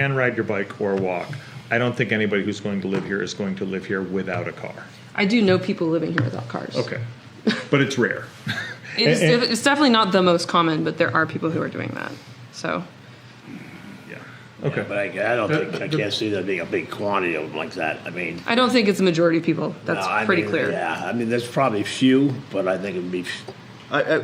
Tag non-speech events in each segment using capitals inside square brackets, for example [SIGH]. can ride your bike or walk. I don't think anybody who's going to live here is going to live here without a car. I do know people living here without cars. Okay. [LAUGHS] But it's rare. It's, And- it's definitely not the most common, but there are people who are doing that. So Yeah. Okay. But I, I don't think, I can't see there being a big quantity of them like that. I mean. I don't think it's a majority of people. That's no, I pretty mean, clear. Yeah, I mean, there's probably few, but I think it'd be, I, I, I,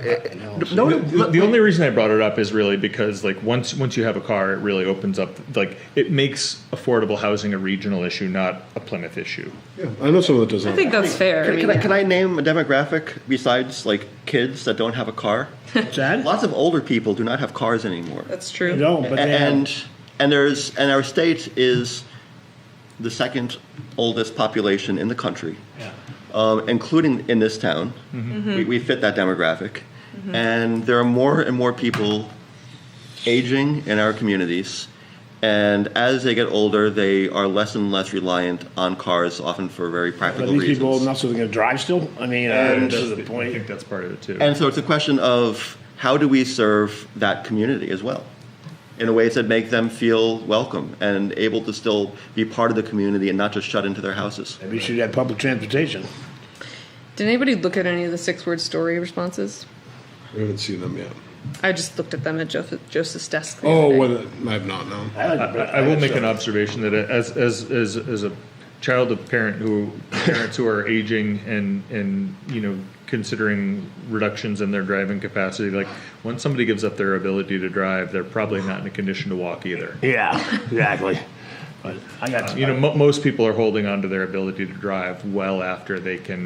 no, The- no, the only reason I brought it up is really because like once once you have a car, it really opens up like it makes affordable housing a regional issue, not a Plymouth issue. Yeah, I know someone that does I that. think that's fair. I Can, mean, can I, can I name a demographic besides like kids that don't have a car? what's that? Lots of older people do not have cars anymore. that's true. No, but A- then, and and there's and our state is the second oldest population in the country, um, including in this town. We, we fit that demographic, and there are more and more people aging in our communities. And as they get older, they are less and less reliant on cars, often for very are practical these reasons. people old enough so they're gonna drive still? I mean, uh, And- to the I point. think that's part of it too. And so it's a question of how do we serve that community as well in a ways that make them feel welcome and able to still be part of the community and not just shut into their houses. Maybe you should have public transportation. Did anybody look at any of the six-word story responses? We haven't seen them yet. I just looked at them at Joseph, Joseph's desk. the Oh, other day. well, I've not known. I like I, the- I will like make the- an observation that as as as, as a child of parent who parents who are aging and and you know considering reductions in their driving capacity, like once somebody gives up their ability to drive, they're probably not in a condition to walk either. Yeah, [LAUGHS] exactly. But I got, You know, mo most people are holding on to their ability to drive well after they can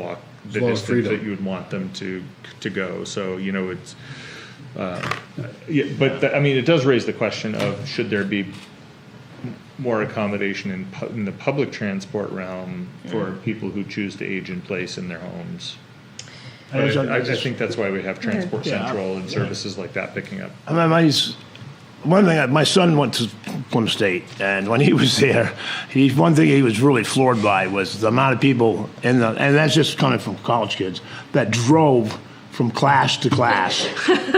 walk the long as distance that freedom. you would want them to to go. So you know, it's uh, yeah, but th- I mean, it does raise the question of should there be m- more accommodation in pu- in the public transport realm for people who choose to age in place in their homes. I was- But Uh, I, I think that's why we have Transport Yeah. Central and services like that picking up. I mean, my, one thing, my son went to Plum State, and when he [LAUGHS] was there, he, one thing he was really floored by was the amount of people, in the, and that's just coming from college kids, that drove from class to class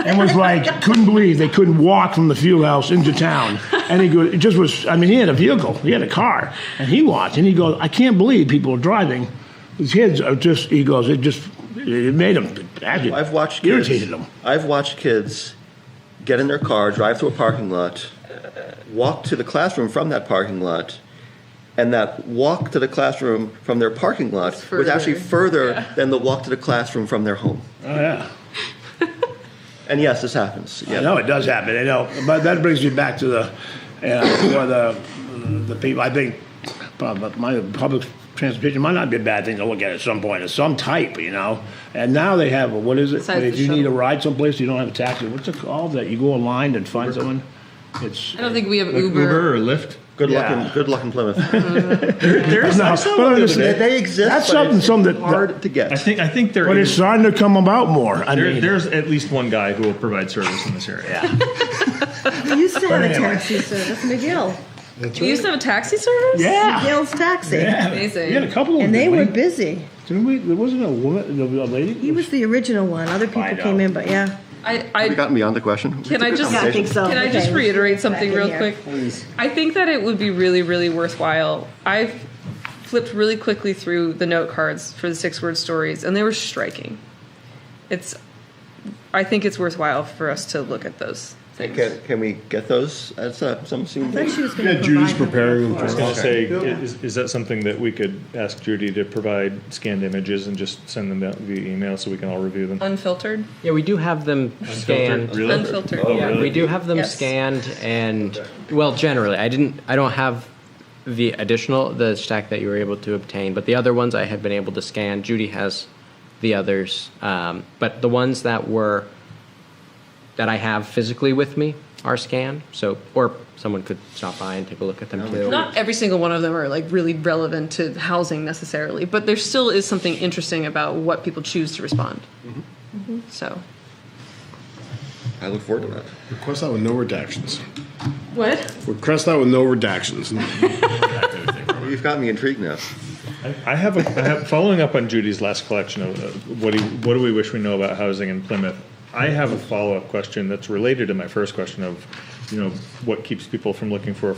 and was like, couldn't believe they couldn't walk from the field house into town. And he goes, it just was, I mean, he had a vehicle, he had a car, and he watched, and he goes, I can't believe people are driving. These kids are just, he goes, it just, it made him, I've watched kids, irritated him. I've watched kids get in their car, drive to a parking lot, walk to the classroom from that parking lot, and that walk to the classroom from their parking lot was further. actually further than the walk to the classroom from their home. Oh, yeah. And yes, this happens. I Yeah. know it does happen. I know, but that brings me back to the, uh, for the, the people. I think prob- my public transportation might not be a bad thing to look at at some point, of some type, you know. And now they have what is it? Besides if the you need a shuttle. ride someplace, you don't have a taxi. What's it called? That you go online and find someone. It's I don't think we have Like Uber. or Lyft. Good Yeah. luck in good luck in Plymouth. [LAUGHS] there's [LAUGHS] no, but I'm just- They, they exist. That's but something. it's Some that, hard to I get. think I think there but it's is. starting to come about more. I There, mean, there's at least one guy who will provide service in this area. We used to have a taxi service, McGill. You used to have a taxi service? yeah. McGill's Taxi. Amazing. We had a couple of And they them, were didn't we? busy. Didn't we? There wasn't a woman, a lady. He was the original one. Other people Find came out. in, but yeah. I, We I, gotten beyond the question. can I just Yeah, I think so. can I just Okay. reiterate something Back real in here. quick? I think that it would be really really worthwhile. I flipped really quickly through the note cards for the six word stories, and they were striking. It's, I think it's worthwhile for us to look at those things. Can, can we get those uh, at some, some soon? I thought she was Yeah, going to Judy's preparing them for I was us. going to say, i- is, is that something that we could ask Judy to provide scanned images and just send them out via email so we can all review them? Unfiltered, Yeah, we do have them scanned. unfiltered. yeah. We do have them Yes. scanned and, well, generally, I didn't, I don't have the additional, the stack that you were able to obtain, but the other ones I have been able to scan. Judy has the others. Um, but the ones that were, that I have physically with me are scanned, so, or someone could stop by and take a look at them too. Not every single one of them are like really relevant to housing necessarily, but there still is something interesting about what people choose to respond. So I look forward to that. Request that with no redactions. what? Request that with no redactions. You've got me intrigued now. I have, a, I have following up on Judy's last collection of uh, what do you, what do we wish we know about housing in Plymouth. I have a follow up question that's related to my first question of, you know, what keeps people from looking for